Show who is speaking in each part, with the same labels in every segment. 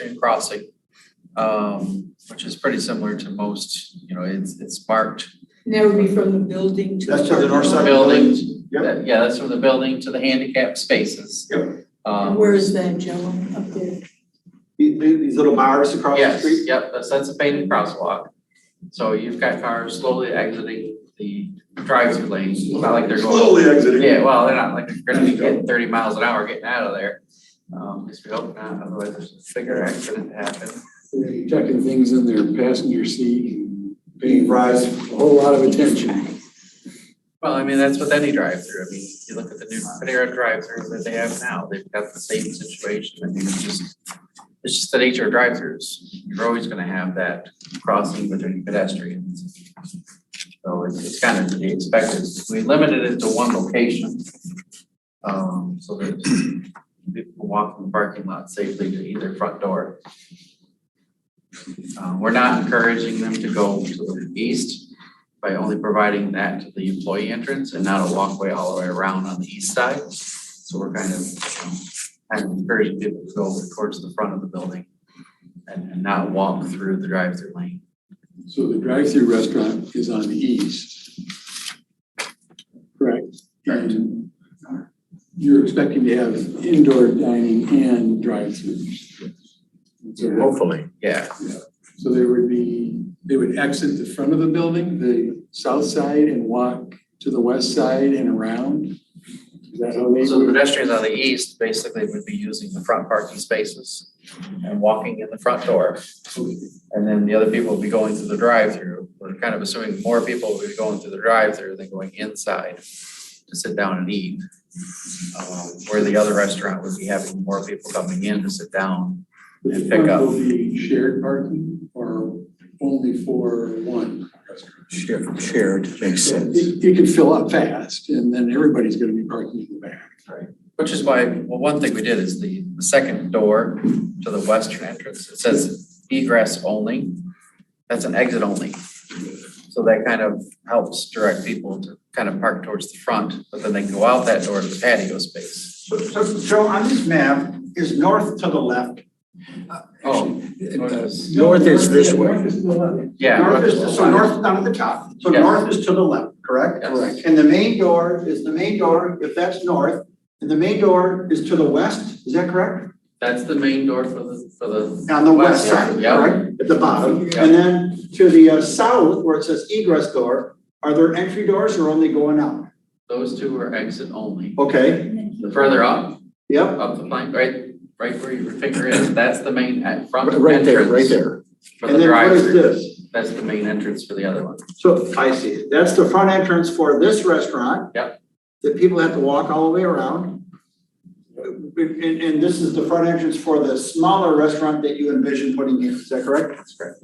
Speaker 1: pedestrian crossing, um, which is pretty similar to most, you know, it's, it's marked
Speaker 2: And that would be from the building to.
Speaker 3: That's to the north side.
Speaker 1: building.
Speaker 3: Yep.
Speaker 1: that- Yeah, that's from the building to the handicap spaces.
Speaker 3: Yep.
Speaker 2: And
Speaker 1: Um,
Speaker 2: Where is that, Joe, up there?
Speaker 3: These, these little bars across the
Speaker 1: yes,
Speaker 3: street?
Speaker 1: yep, that's, that's a painted crosswalk. So you've got cars slowly exiting the drive-through lane, not like they're going.
Speaker 3: Slowly exiting.
Speaker 1: Yeah, well, they're not like, they're gonna be getting thirty miles an hour getting out of there. Um, at least we hope not, otherwise there's a bigger accident to happen.
Speaker 4: They're Tucking things in their passenger seat and paying
Speaker 3: Fries.
Speaker 4: a whole lot of attention.
Speaker 1: Well, I mean, that's with any drive-through, I mean, you look at the new Panera drive-throughs that they have now, they've got the same situation, I mean, it's just. It's just the nature of drive-throughs, you're always gonna have that crossing between pedestrians. So it's, it's kind of to be expected, we limited it to one location. Um, so that people can walk from the parking lot safely to either front door. Uh, we're not encouraging them to go to the east, by only providing that to the employee entrance and not a walkway all the way around on the east side. So we're kind of, you know, kind of encouraging people to go towards the front of the building and and not walk through the drive-through lane.
Speaker 4: So the drive-through restaurant is on the east. Correct. And you're expecting to have indoor dining and drive-throughs. So-
Speaker 5: Hopefully.
Speaker 1: Yeah,
Speaker 4: So there would be, they would exit the front of the building, the south side, and walk to the west side and around? Is that how they
Speaker 1: so the
Speaker 4: would?
Speaker 1: pedestrians on the east basically would be using the front parking spaces and walking in the front door. And then the other people would be going through the drive-through. We're kind of assuming more people would be going through the drive-through than going inside to sit down and eat. Um, Where the other restaurant would be having more people coming in to sit down.
Speaker 4: The
Speaker 1: pick
Speaker 4: front
Speaker 1: up.
Speaker 4: Will be shared parking or only for one restaurant?
Speaker 5: Shared, shared makes sense.
Speaker 4: It, it could fill up fast and then everybody's gonna be parking in the back.
Speaker 1: Which is why, well, one thing we did is the, the second door to the western entrance, it says egress only. That's an exit only. So that kind of helps direct people to kind of park towards the front, but then they can go out that door to the patio space.
Speaker 6: So, so Joe, on this map, is north to the left?
Speaker 1: Oh,
Speaker 5: North is this way.
Speaker 3: North is to the left.
Speaker 1: yeah.
Speaker 6: North is, so north down at the top, so
Speaker 1: Yes.
Speaker 6: north is to the left, correct?
Speaker 1: Yes.
Speaker 6: Correct. And the main door is the main door, if that's north, and the main door is to the west, is that correct?
Speaker 1: That's the main door for the, for the,
Speaker 6: On the
Speaker 1: West,
Speaker 6: west side,
Speaker 1: yeah.
Speaker 6: correct, at the bottom,
Speaker 1: Yeah.
Speaker 6: and then to the uh, south where it says egress door, are there entry doors or only going out?
Speaker 1: those two are exit only.
Speaker 6: Okay,
Speaker 1: The further up,
Speaker 6: yep,
Speaker 1: up the line, right, right where your finger is, that's the main at front
Speaker 5: Right there, right
Speaker 1: entrance
Speaker 5: there.
Speaker 1: for
Speaker 6: and
Speaker 1: the
Speaker 6: then what is
Speaker 1: drive-through.
Speaker 6: this?
Speaker 1: That's the main entrance for the other one.
Speaker 6: So I see, that's the front entrance for this restaurant.
Speaker 1: Yep.
Speaker 6: That people have to walk all the way around. And, and this is the front entrance for the smaller restaurant that you envision putting in, is that correct?
Speaker 1: That's correct.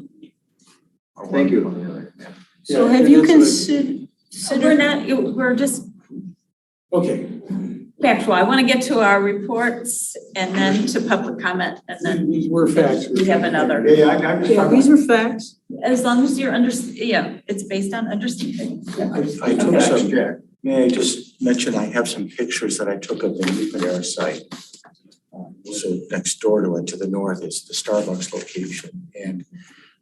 Speaker 1: Or
Speaker 6: Thank
Speaker 1: one
Speaker 6: you.
Speaker 1: or the other, yeah.
Speaker 2: So
Speaker 4: Yeah,
Speaker 2: have
Speaker 4: and
Speaker 2: you
Speaker 4: that's
Speaker 2: considered,
Speaker 7: So we're not, it- we're just
Speaker 4: what- Okay,
Speaker 7: factual. I want to get to our reports and then to public comment and then
Speaker 4: these were facts.
Speaker 7: we have another.
Speaker 6: Yeah, yeah, I- I'm just
Speaker 2: yeah,
Speaker 6: talking.
Speaker 2: these are facts.
Speaker 7: As long as you're under, yeah, it's based on understanding.
Speaker 5: I, I took some, may I just mention, I have some pictures that I took of the New Panera site. Um, So next door to it, to the north is the Starbucks location. And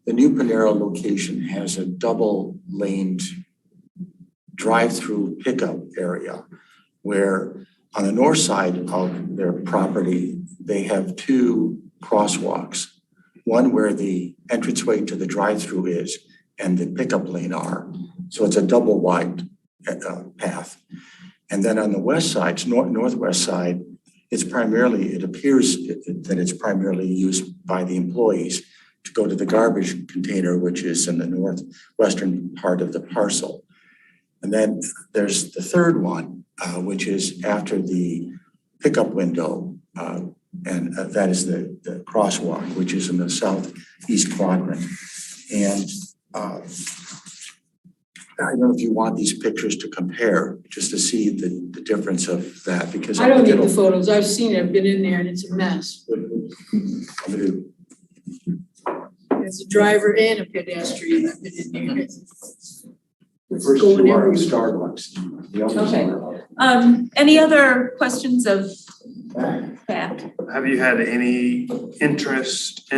Speaker 5: the New Panera location has a double laned drive-through pickup area where on the north side of their property, they have two crosswalks. One where the entranceway to the drive-through is and the pickup lane are. So it's a double wide uh, path. And then on the west side, it's nor- northwest side, it's primarily, it appears it- it- that it's primarily used by the employees to go to the garbage container, which is in the northwestern part of the parcel. And then there's the third one, uh, which is after the pickup window. uh, And uh, that is the the crosswalk, which is in the southeast quadrant. And uh, I don't know if you want these pictures to compare, just to see the, the difference of that, because.
Speaker 2: I don't
Speaker 5: think
Speaker 2: need the
Speaker 5: it'll-
Speaker 2: photos, I've seen it, I've been in there and it's a mess.
Speaker 5: I'm gonna do-
Speaker 2: As a driver and a pedestrian, I've been in there. It's
Speaker 5: The first
Speaker 2: going
Speaker 5: two are
Speaker 2: everywhere.
Speaker 5: Starbucks. The others
Speaker 7: Okay.
Speaker 5: are-
Speaker 7: Um, any other questions of Back.
Speaker 8: Have you had any interest